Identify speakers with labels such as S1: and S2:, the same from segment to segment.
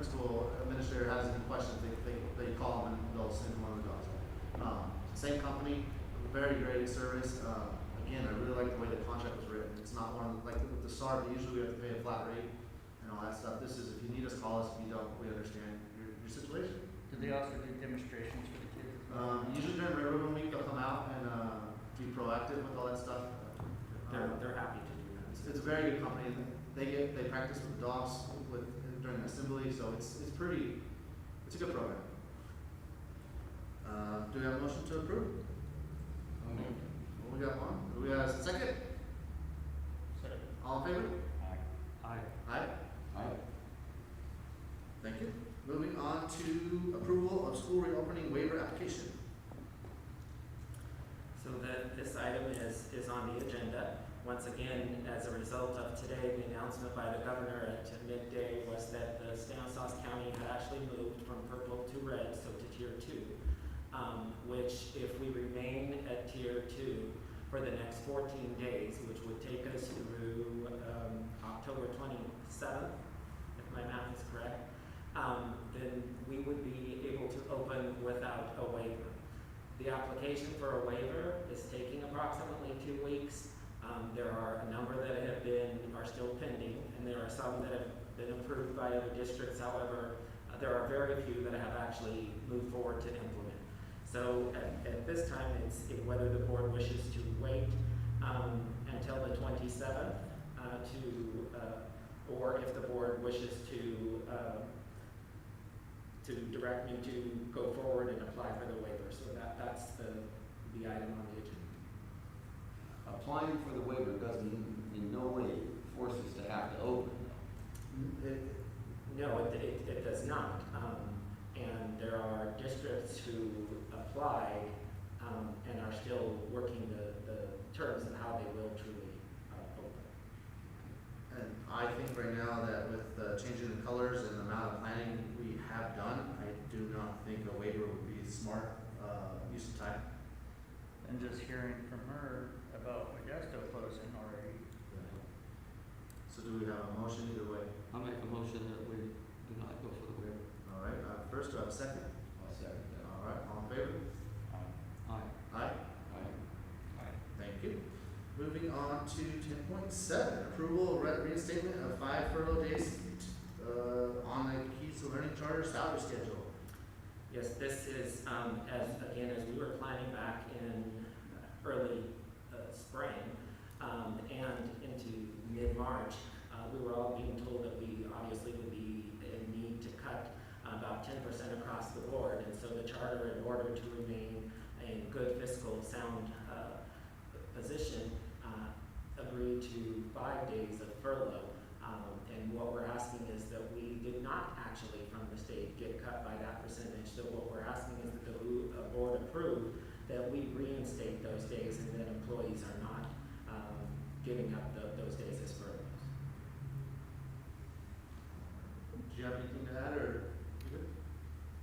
S1: school administrator has any questions, they, they, they call them and they'll send one of the dogs. Um, same company, very great service, um, again, I really like the way the contract was written, it's not one, like with the SARB, usually we have to pay a flat rate and all that stuff, this is, if you need us, call us, if you don't, we understand your, your situation.
S2: Did they also do demonstrations for the kids?
S1: Um, usually during Red Ribbon Week, they'll come out and, uh, be proactive with all that stuff.
S3: They're,
S1: Um,
S3: they're happy to do
S1: It's,
S3: that.
S1: it's a very good company, and they get, they practice with the dogs with, during the assembly, so it's, it's pretty, it's a good program. Uh, do we have a motion to approve?
S4: Oh,
S1: Well, we got one, do we have a second? All in favor?
S3: Aye.
S1: Aye. Thank you. Moving on to approval of school reopening waiver application.
S3: So that, this item is, is on the agenda. Once again, as a result of today, the announcement by the governor at midday was that the Stanislaus County had actually moved from purple to red, so to tier two. Um, which if we remain at tier two for the next fourteen days, which would take us through, um, October twenty-seventh, if my math is correct, um, then we would be able to open without a waiver. The application for a waiver is taking approximately two weeks. Um, there are a number that have been, are still pending, and there are some that have been approved by other districts. However, uh, there are very few that have actually moved forward to implement. So at, at this time, it's if whether the board wishes to wait, um, until the twenty-seventh, uh, to, uh, or if the board wishes to, uh, to direct me to go forward and apply for the waiver, so that, that's the, the item on the agenda.
S4: Applying for the waiver doesn't in no way force us to have to open.
S1: It-
S3: No, it, it, it does not, um, and there are districts who applied, um, and are still working the, the terms of how they will truly, uh, open.
S1: And I think right now that with uh, changing the colors and the amount of planning we have done, I do not think a waiver would be smart uh, use of time.
S2: And just hearing from her about Modesto closing already,
S1: So do we have a motion either way?
S4: I'll make a motion that we do not go for the waiver.
S1: All right, uh, first, do I have a second?
S4: I'll second
S1: All right, all in favor?
S4: Aye.
S1: Aye.
S4: Aye.
S1: Thank you. Moving on to ten point seven, approval of re- reinstatement of five furlough days uh, on the Keys to Learning Charter salary schedule.
S3: Yes, this is, um, as, again, as we were planning back in early, uh, spring, um, and into mid-March, uh, we were all being told that we obviously would be in need to cut about ten percent across the board, and so the charter, in order to remain in good fiscal sound, uh, position, uh, agreed to five days of furlough. Um, and what we're asking is that we did not actually from the state get cut by that percentage, so what we're asking is that the bo- uh, board approve that we reinstate those days and that employees are not, um, giving up tho- those days as furloughs.
S1: Do you have anything to add or?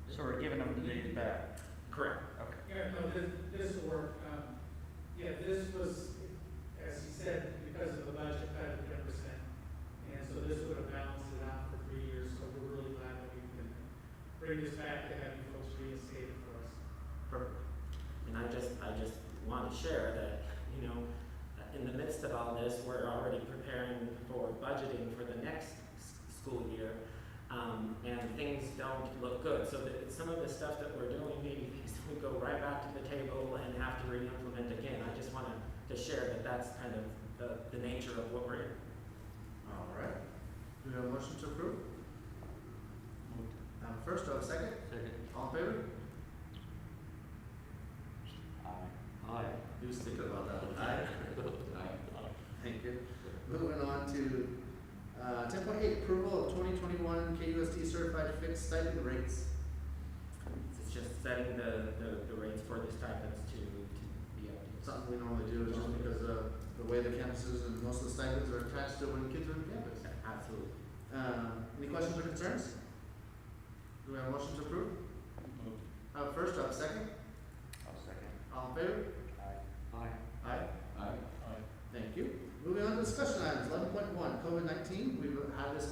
S2: so we're giving them the days back,
S3: Correct.
S2: okay.
S5: Yeah, no, this, this will work. Um, yeah, this was, as he said, because of the budget cut of ten percent. And so this would have balanced it out for three years, so we're really glad that we can bring this back to have you folks reinstate it for us.
S3: Perfect. And I just, I just want to share that, you know, uh, in the midst of all this, we're already preparing for budgeting for the next s- school year. Um, and things don't look good, so that some of the stuff that we're doing, maybe things that we go right back to the table and have to re-implement again. I just wanted to share that that's kind of the, the nature of what we're in.
S1: All right. Do we have a motion to approve? Um, first, do I have a second?
S4: Second.
S1: All in favor?
S4: Aye. Aye.
S1: He was thinking about that. Aye.
S4: Aye.
S1: Thank you. Moving on to, uh, ten point eight, approval of twenty twenty-one KUSD certified fixed stipend rates.
S3: It's just setting the, the, the rates for the stipends to, to be updated.
S1: Something we normally do is just because of the way the campuses and most of the stipends are attached to when kids are on campus.
S3: Absolutely.
S1: Um, any questions or concerns? Do we have a motion to approve? Uh, first, do I have a second?
S2: I'll second.
S1: All in favor?
S4: Aye.
S1: Aye.
S4: Aye.
S1: Thank you. Moving on to discussion items, eleven point one, COVID nineteen, we've had this